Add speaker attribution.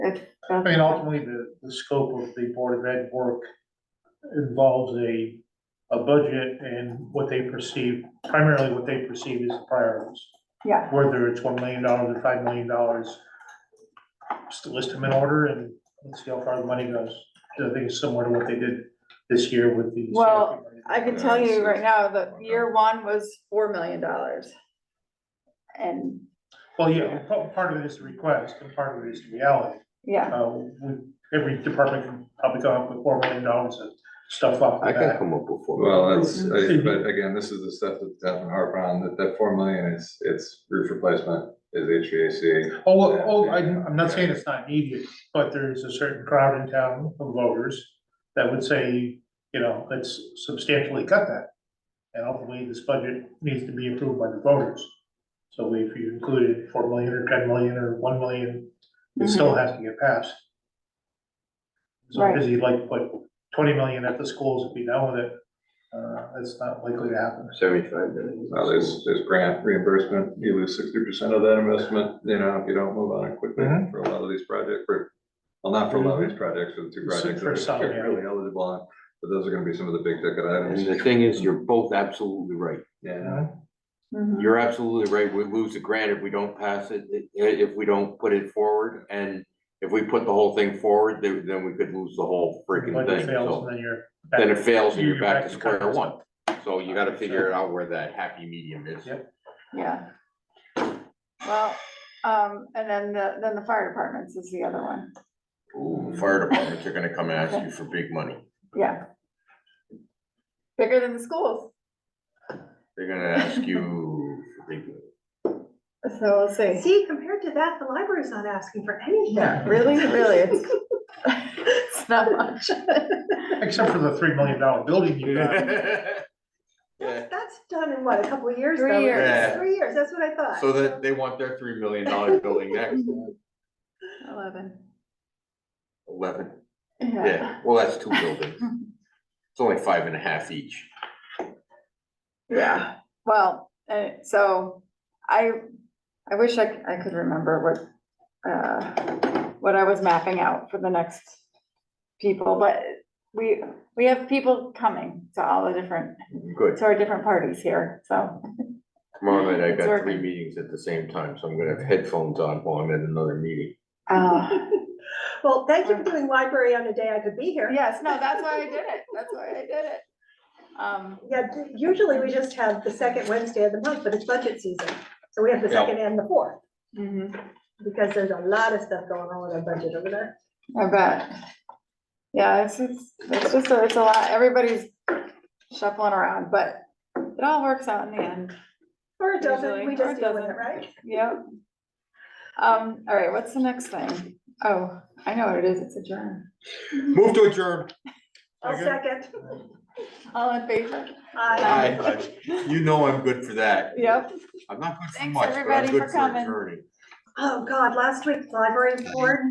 Speaker 1: If-
Speaker 2: I mean, ultimately, the, the scope of the Board of Ed work involves a, a budget and what they perceive, primarily what they perceive as priorities.
Speaker 1: Yeah,
Speaker 2: Whether it's one million dollars or five million dollars, just list them in order and let's see how far the money goes. I think it's similar to what they did this year with the.
Speaker 1: Well, I can tell you right now that year one was four million dollars. And,
Speaker 2: Well, yeah, pa- part of it is the request and part of it is the reality.
Speaker 1: yeah,
Speaker 2: Uh, we, every department can probably come up with four million dollars of stuff off
Speaker 3: I
Speaker 2: the
Speaker 3: can
Speaker 2: bat.
Speaker 3: come up with four.
Speaker 4: Well, that's, I-
Speaker 2: Mhm.
Speaker 4: but again, this is the stuff that Devin harp on, that that four million is, it's roof replacement, is HVAC.
Speaker 2: Oh, well, oh, I'm, I'm not saying it's not needed, but there's a certain crowd in town of voters that would say, you know, let's substantially cut that. And ultimately, this budget needs to be approved by the voters. So if you included four million or ten million or one million, it still has to get passed.
Speaker 1: Mm-hmm.
Speaker 2: So
Speaker 1: Right.
Speaker 2: because you like, put twenty million at the schools, if we done with it, uh, that's not likely to happen.
Speaker 3: Seventy-five million.
Speaker 4: Now, there's, there's grant reimbursement, you lose sixty percent of that investment, you know, if you don't move on it quickly
Speaker 2: Mhm.
Speaker 3: Mm-hmm.
Speaker 4: for a lot of these projects, for, well, not for a lot of these projects, for the two
Speaker 2: Mhm.
Speaker 4: projects
Speaker 2: For some,
Speaker 4: that
Speaker 2: yeah.
Speaker 4: are really eligible on, but those are gonna be some of the big ticket
Speaker 3: And
Speaker 4: items.
Speaker 3: the thing is, you're both absolutely right.
Speaker 4: Yeah,
Speaker 1: Mhm.
Speaker 3: You're absolutely right. We lose the grant if we don't pass it, i- if we don't put it forward. And if we put the whole thing forward, then, then we could lose the whole freaking
Speaker 2: Budget
Speaker 3: thing.
Speaker 2: fails,
Speaker 3: So
Speaker 2: and then you're. back-
Speaker 3: then it fails and
Speaker 2: you-
Speaker 3: you're back to
Speaker 2: cutting
Speaker 3: square
Speaker 2: it.
Speaker 3: one. So you gotta figure it out where that happy medium is.
Speaker 2: Yep.
Speaker 1: Mm-hmm. yeah. Well, um, and then the, then the fire departments is the other one,
Speaker 3: Ooh, fire departments are gonna come and ask you for big money.
Speaker 1: yeah. Bigger than the schools,
Speaker 3: They're gonna ask you for big money.
Speaker 1: so let's see,
Speaker 5: See, compared to that, the library's not asking for anything.
Speaker 1: really, really, it's, it's not much.
Speaker 2: Except for the three million dollar building you got.
Speaker 3: Yeah.
Speaker 5: That's done in what, a couple of years?
Speaker 1: Three
Speaker 5: though?
Speaker 1: years.
Speaker 3: Yeah.
Speaker 5: Three years, that's what I thought.
Speaker 3: So that they want their three million dollar building next,
Speaker 1: Eleven.
Speaker 3: eleven, yeah, well, that's two buildings. It's only five and a half each.
Speaker 1: Yeah, well, uh, so I, I wish I, c- I could remember what, uh, what I was mapping out for the next people, but we, we have people coming to all the different,
Speaker 3: Good,
Speaker 1: to our different parties here, so.
Speaker 3: tomorrow night I've
Speaker 1: It's
Speaker 3: got three
Speaker 1: working.
Speaker 3: meetings at the same time, so I'm gonna have headphones on while I'm at another meeting.
Speaker 1: uh,
Speaker 5: Well, thank you for doing library on a day I could be here.
Speaker 1: Yes, no, that's why I did it, that's why I did it. Um,
Speaker 5: Yeah, d- usually we just have the second Wednesday of the month, but it's budget season. So we have the
Speaker 3: Yeah.
Speaker 5: second and the fourth,
Speaker 1: mhm,
Speaker 5: because there's a lot of stuff going on with our budget over there.
Speaker 1: I bet. Yeah, it's, it's, it's just, a- it's a lot, everybody's shuffling around, but it all works out in the end.
Speaker 5: Or it doesn't,
Speaker 1: Usually,
Speaker 5: we
Speaker 1: or it
Speaker 5: just deal with it,
Speaker 1: doesn't.
Speaker 5: right?
Speaker 1: Yep. Um, all right, what's the next thing? Oh, I know what it is, it's adjourned.
Speaker 3: Move to adjourn.
Speaker 5: I'll
Speaker 2: Okay.
Speaker 5: second.
Speaker 1: All in favor?
Speaker 5: Aye.
Speaker 3: Aye. You know I'm good for that.
Speaker 1: Yep,
Speaker 3: I'm not good for
Speaker 1: Thanks,
Speaker 3: much, but
Speaker 1: everybody,
Speaker 3: I'm
Speaker 1: for
Speaker 3: good for
Speaker 1: coming.
Speaker 3: adjourning.
Speaker 5: Oh, God, last week's library board